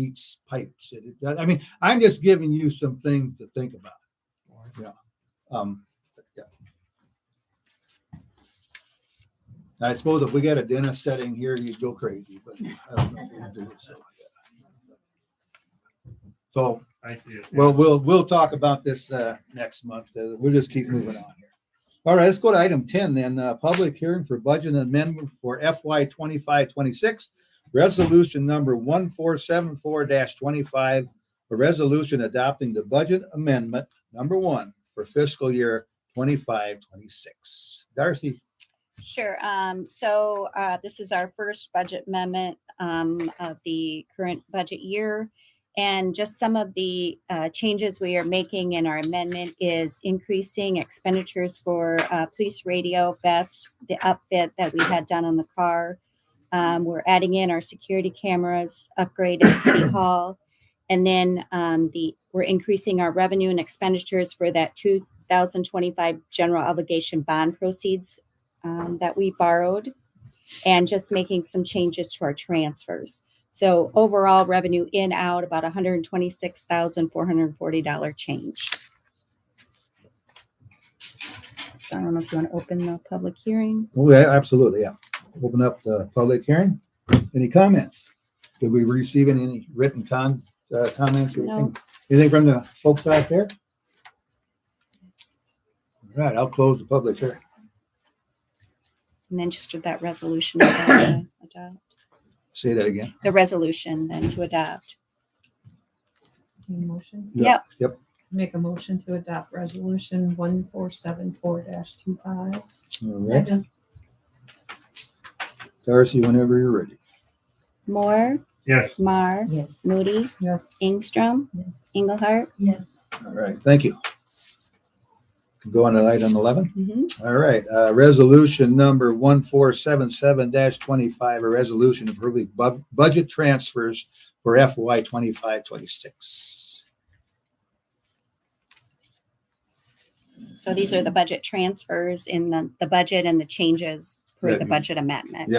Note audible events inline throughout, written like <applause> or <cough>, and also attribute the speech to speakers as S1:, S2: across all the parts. S1: each pipe shit. It does- I mean, I'm just giving you some things to think about. Yeah. Um, yeah. I suppose if we got a dentist setting here, you'd go crazy, but I don't know if we do, so. yeah. So,
S2: I see it.
S1: well, we'll, we'll talk about this, uh, next month. Uh, We'll just keep moving on here. All right, let's go to item ten then, uh, public hearing for budget amendment for FY twenty-five, twenty-six. Resolution number one four seven four twenty-five, a resolution adopting the budget amendment number one for fiscal year twenty-five, twenty-six. Darcy,
S3: Sure. Um, so, uh, this is our first budget amendment, um, of the current budget year. And just some of the, uh, changes we are making in our amendment is increasing expenditures for, uh, police radio vest, the upfit that we had done on the car. Um, we're adding in our security cameras, upgrade at City Hall. And then, um, the, we're increasing our revenue and expenditures for that two thousand twenty-five general obligation bond proceeds um, that we borrowed and just making some changes to our transfers. So overall revenue in out about $126,440 change. So I don't know if you want to open the public hearing.
S1: oh, yeah, absolutely, yeah. Open up the public hearing. Any comments? Did we receive any written con, uh, comments? or
S3: No.
S1: anything? Anything from the folks out there? All right, I'll close the public hearing.
S3: And then just did that resolution. about the adopt-
S1: Say that again.
S3: The resolution then to adopt.
S4: Need a Motion,
S1: Yeah,
S3: Yep.
S1: Yep,
S4: make a motion to adopt resolution one four seven four dash two five.
S1: all right. Darcy, whenever you're ready.
S3: Moore,
S2: Yes,
S3: Mar,
S4: Yes.
S3: Moody,
S4: Yes.
S3: Ingstrom,
S4: Yes.
S3: Engelhardt.
S4: Yes.
S1: All right, thank you. Go on to item eleven.
S3: Mhm.
S1: All right, uh, resolution number one four seven seven twenty-five, a resolution approving bu- budget transfers for FY twenty-five, twenty-six.
S3: So these are the budget transfers in the, the budget and the changes for
S1: That
S3: the
S1: you-
S3: budget amendment.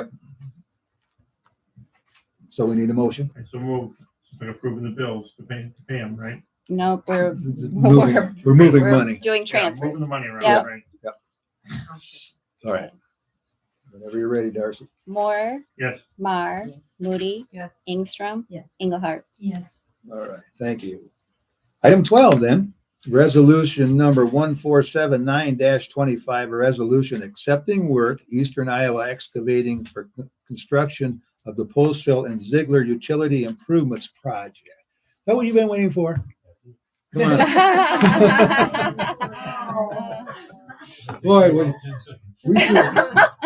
S1: So we need a motion.
S2: I so move, been approving the bills to pay to pay 'em, right?
S3: Nope, we're
S1: Moving- We're moving
S3: We're
S1: money.
S3: Doing
S2: Yeah,
S3: transfers.
S2: Moving the money around,
S3: Yep.
S2: right?
S1: All right. Whenever you're ready, Darcy.
S3: Moore,
S2: Yes,
S3: Mar, Moody,
S4: Yes.
S3: Ingstrom,
S4: Yes.
S2: <laughs>
S3: Engelhardt. <laughs>
S4: Yes.
S1: All right, thank you. Item twelve then, resolution number one four seven nine twenty-five, a resolution accepting work Eastern Iowa excavating for c- construction of the Postville and Ziegler Utility Improvements Project. Is That what you've been waiting for? Come on,
S3: <laughs>
S1: boy, we, we sure,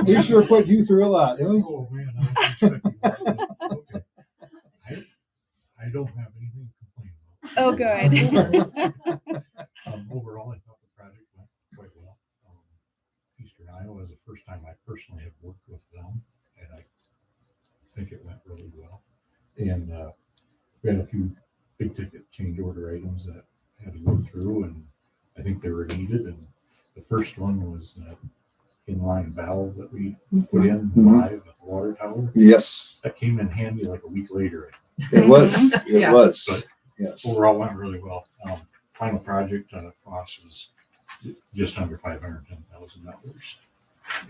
S1: we sure put you through a lot, didn't we?
S5: Oh, man, I was expecting that. Okay. I- I don't have anything to complain
S3: Oh, good.
S5: about. Um, Overall, I thought the project went quite well. Um, Eastern Iowa is the first time I personally have worked with them, and I think it went really well. And uh, we had a few big ticket change order items that had to go through, and I think they were needed. And the first one was that inline valve that we put in
S1: Mhm.
S5: live at the water tower
S1: Yes,
S5: that came in handy like a week later.
S1: it was, it
S4: Yeah.
S1: was, yes.
S5: Overall went really well. Um, final project uh, cost was ju- just under five hundred ten thousand dollars.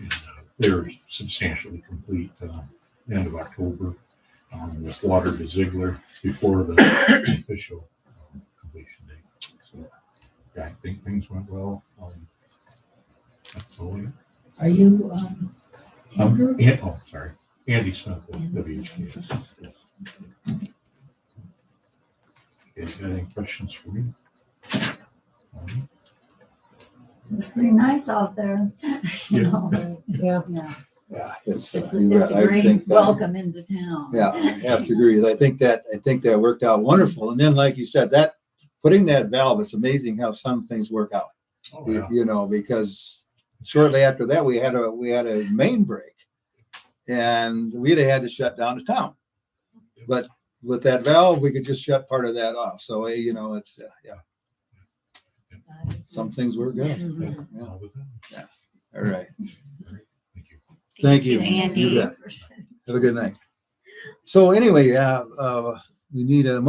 S5: And uh, they were substantially complete uh, end of October um, with water to Ziegler before the official um, completion date. So yeah, I think things went well. Um, that's all. I got.
S6: Are you, um,
S5: Um, and, oh, sorry, Andy Smith, with WHKS. Okay, got any questions for me? Um,
S6: it's pretty nice out there. You <laughs>
S5: Yeah.
S6: know,
S4: Yeah.
S6: yeah.
S1: Yeah, it's, uh,
S6: It's a-
S1: you-
S6: it's a
S1: I
S6: great
S1: think, uh,
S6: welcome into town.
S1: Yeah, I have to agree. I think that, I think that worked out wonderful. And then, like you said, that, putting that valve, it's amazing how some things work out.
S5: Oh,
S1: You
S5: yeah.
S1: you know, because shortly after that, we had a, we had a main break. And we'd have had to shut down the town. But with that valve, we could just shut part of that off. So, eh, you know, it's, uh, yeah, some things work out.
S4: Mm-hmm.
S6: Mhm.
S5: All with them.
S1: All right.
S5: Thank you.
S1: Thank you.
S3: Andy.
S1: You bet. Have a good night. So anyway, uh, uh, we need a